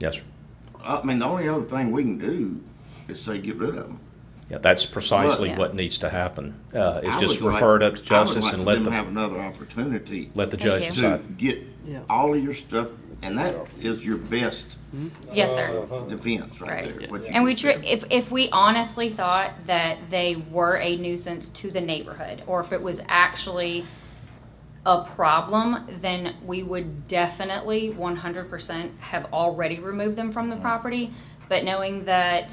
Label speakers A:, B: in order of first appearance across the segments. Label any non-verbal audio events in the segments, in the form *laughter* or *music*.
A: Yes, sir.
B: I mean, the only other thing we can do is say get rid of them.
A: Yeah, that's precisely
C: Yeah.
A: what needs to happen. Uh, it's
B: I
A: just
B: would like-
A: referred up to
B: I would
A: justice
B: like
A: and
B: for
A: let
B: them
A: the,
B: Have another opportunity
A: let the
C: Thank
A: judge
C: you.
B: to
A: decide.
B: get
D: Yeah.
B: all of your stuff, and that is your best
C: Yes, sir.
B: Uh, defense right
C: Right.
B: there. what you
C: And we,
B: just
C: tr-
B: said.
C: if, if we honestly thought that they were a nuisance to the neighborhood, or if it was actually a problem, then we would definitely one hundred percent have already removed them from the property. But knowing that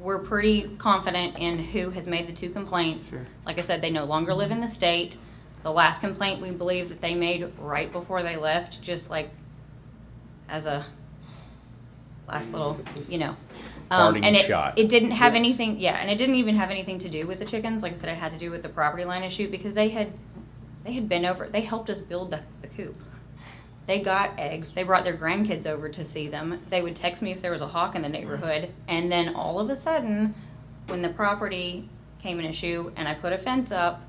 C: we're pretty confident in who has made the two complaints.
D: Sure.
C: Like I said, they no longer live in the state. The last complaint we believe that they made right before they left, just like as a last little, you know. Um,
A: Parting
C: and it,
A: shot.
C: it didn't have anything, yeah, and it didn't even have anything to do with the chickens. Like I said, it had to do with the property line issue because they had, they had been over, they helped us build the, the coop. They got eggs. They brought their grandkids over to see them. They would text me if there was a hawk in the neighborhood. And then all of a sudden, when the property came an issue and I put a fence up,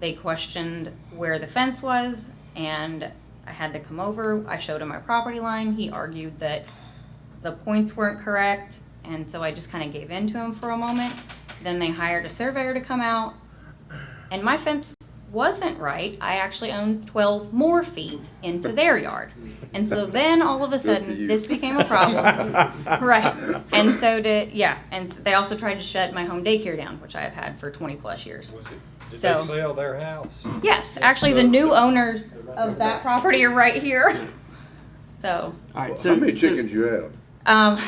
C: they questioned where the fence was and I had to come over. I showed him my property line. He argued that the points weren't correct. And so I just kind of gave in to him for a moment. Then they hired a surveyor to come out and my fence wasn't right. I actually owned 12 more feet into their yard. And so then all of a sudden, this became
B: *laughs*
C: a problem. right. And so did, yeah. And s they also tried to shut my home daycare down, which I have had for 20 plus years.
E: Was it, did
C: So- Mm-hmm.
E: they sell their house?
C: Yes, actually, the new owners of that property are right here. *laughs* So,
D: All right, so.
F: How many
D: so-
F: chickens you have?
C: um,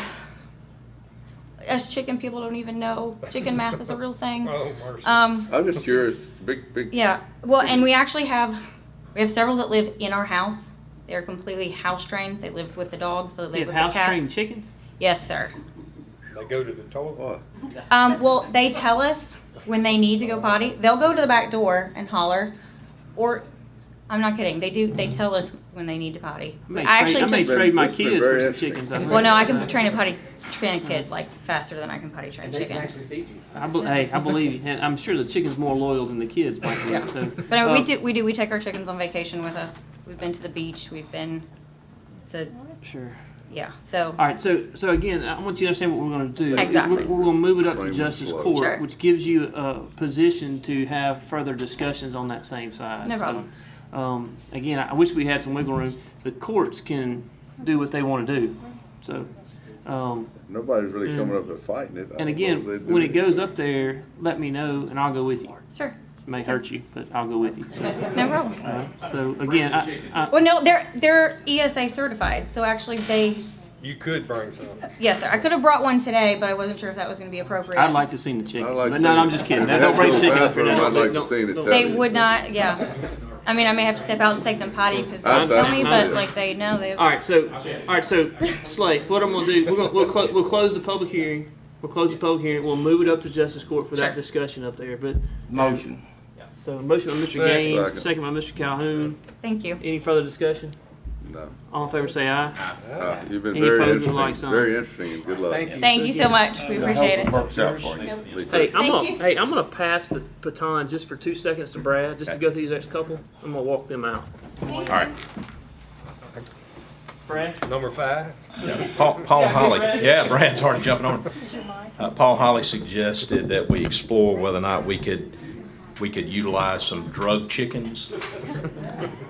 C: us chicken people don't even know chicken math is a real thing.
E: Oh, mercy.
C: Um,
F: I'm just curious, big, big.
C: Yeah, well, and we actually have, we have several that live in our house. They're completely house trained. They live with the dogs, they
D: You
C: live
D: have
C: with the
D: house trained
C: cats.
D: chickens?
C: Yes, sir.
E: They go to the toilet.
F: What?
C: Um, well, they tell us when they need to go potty. They'll go to the back door and holler, or, I'm not kidding, they do, they tell us when they need to potty.
D: I may
C: I
D: trade-
C: actually
D: I may
C: took,
F: took-
D: trade my
F: This has been
D: kids for
F: very
D: some
F: interesting.
D: chickens. I uh, think.
C: well, no, I can train a potty, train a kid like faster than I can potty train a
G: They can
C: chicken.
G: actually feed you.
D: I bel- Hey, I believe you, and I'm sure the chicken's more loyal than the kids, by the way, so.
C: But uh, we
D: um,
C: do, we do, we take our chickens on vacation with us. We've been to the beach, we've been to,
D: Sure.
C: yeah, so.
D: All right, so, so again, I want you to understand what we're gonna do.
C: Exactly.
D: We're, we're gonna move it up to
F: Explain
D: justice
F: what's
C: Sure.
D: court, which gives you a position to have further discussions on that same side.
C: No
D: So,
C: problem.
D: Um, again, I wish we had some wiggle room. The courts can do what they wanna do, so, um,
F: Nobody's really coming up and fighting it. I don't
D: and
F: know
D: again,
F: if they do
D: when it goes
F: anything.
D: up there, let me know and I'll go with you.
C: Sure,
D: May hurt you, but I'll go with you.
C: no problem.
D: Uh, So again, I, I,
C: Well, no, they're they're ESA certified, so actually they
E: You could bring some.
C: yes, sir. I could have brought one today, but I wasn't sure if that was going to be appropriate.
D: I'd like to see the chicken,
F: I'd like
D: but
F: to
D: no, no,
F: see it.
D: I'm just kidding.
F: If
D: No,
F: they
D: Don't
F: have *laughs*
D: bring
F: no
D: chicken up here.
F: bathroom,
D: No,
F: I'd like
D: no,
F: to see it.
D: no.
C: they
F: That
C: would
F: is-
C: not, yeah. I mean, I may have to step out to take them potty because
F: I
C: they'll tell me, but
F: understand.
C: like they know they.
D: All right, so, all right, so Slay, what I'm gonna do, we're gonna, we'll close, we'll close the public hearing. We'll close the public hearing. We'll move it up to justice court for that
C: Sure.
D: discussion up there, but,
B: Motion.
D: so a motion by Mr.
E: Second.
D: Gaines,
F: Second.
D: second by Mr. Calhoun.
C: Thank you.
D: Any further discussion?
F: No.
D: All in favor, say aye.
A: Ah.
F: Uh, You've been
D: Any
F: very
D: opposed would like
F: interesting,
D: some.
F: very interesting, and good luck.
G: Thank you.
C: Thank you so much. We appreciate it.
B: Works out for you.
F: Be
D: Hey,
F: careful.
D: I'm
C: Thank
D: gonna,
C: you.
D: hey, I'm gonna pass the baton just for two seconds to Brad, just to go through these next couple. I'm gonna walk them out.
C: All
A: right.
D: Brad?
E: Number five?
A: Paul, Paul Holly,
C: *laughs*
D: Brad.
A: yeah, Brad's already jumping on. Uh, Paul Holly suggested that we explore whether or not we could, we could utilize some drug
C: *laughs*
A: chickens.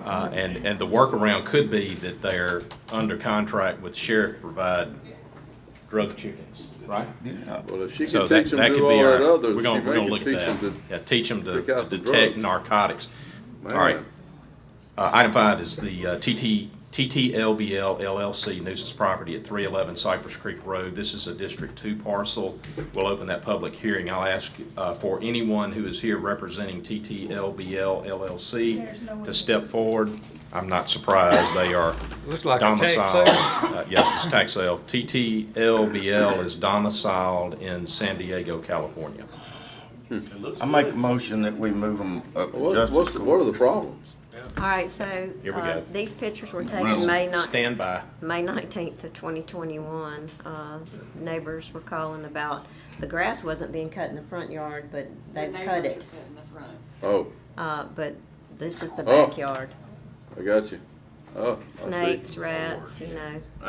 A: Uh, and, and the workaround could be that they're under contract with the sheriff to provide drug chickens, right?
B: Yeah.
F: Well, if she
A: So
F: can
A: that,
F: teach them
A: that
F: to
A: could
F: do
A: be
F: all that
A: our,
F: others,
A: we're
F: she
A: gonna, we're gonna
F: may
A: look
F: can teach
A: at
F: them
A: that.
F: to.
A: Yeah, teach them to
F: pick out
A: to
F: some
A: detect
F: drugs.
A: narcotics. All right.
F: Man,
A: Uh, Item five is the uh, TT TTLBL LLC nuisance property at 311 Cypress Creek Road. This is a District 2 parcel. We'll open that public hearing. I'll ask uh, for anyone who is here representing TTLBL LLC to step forward. I'm not surprised, they are
E: Looks like a tax
A: domiciled.
E: sale.
A: uh, Yes, it's tax sale. TTLBL is domiciled in San Diego, California.
B: I make a motion that we move them up to
F: What, what's,
B: justice
F: the- what are
B: court.
F: the problems?
H: All right, so,
A: Here we
H: uh,
A: go.
H: these pictures were
B: Well,
H: taken May ni-
A: Stand by.
H: May nineteenth of twenty twenty-one. Uh, neighbors were calling about, the grass wasn't being cut in the front yard, but they've cut it.
F: Oh,
H: Uh, but this is the
F: Oh.
H: backyard.
F: I got you. Oh, I see.
H: Snakes, rats, you know.